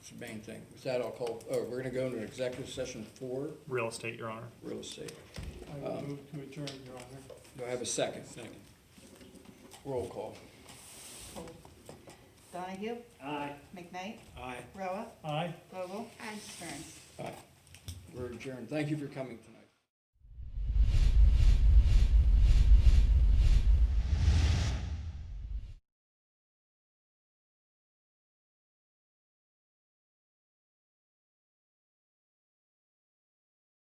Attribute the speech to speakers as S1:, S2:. S1: It's the main thing. With that, I'll call, oh, we're gonna go into executive session for
S2: Real estate, Your Honor.
S1: real estate.
S3: I will move to adjourn, Your Honor.
S1: Do I have a second?
S4: Second.
S1: Roll call.
S5: Donahue,
S3: Aye.
S5: McKnight,
S4: Aye.
S5: Roa,
S3: Aye.
S5: Vogel, Stearns.
S1: Aye. We're adjourned. Thank you for coming tonight.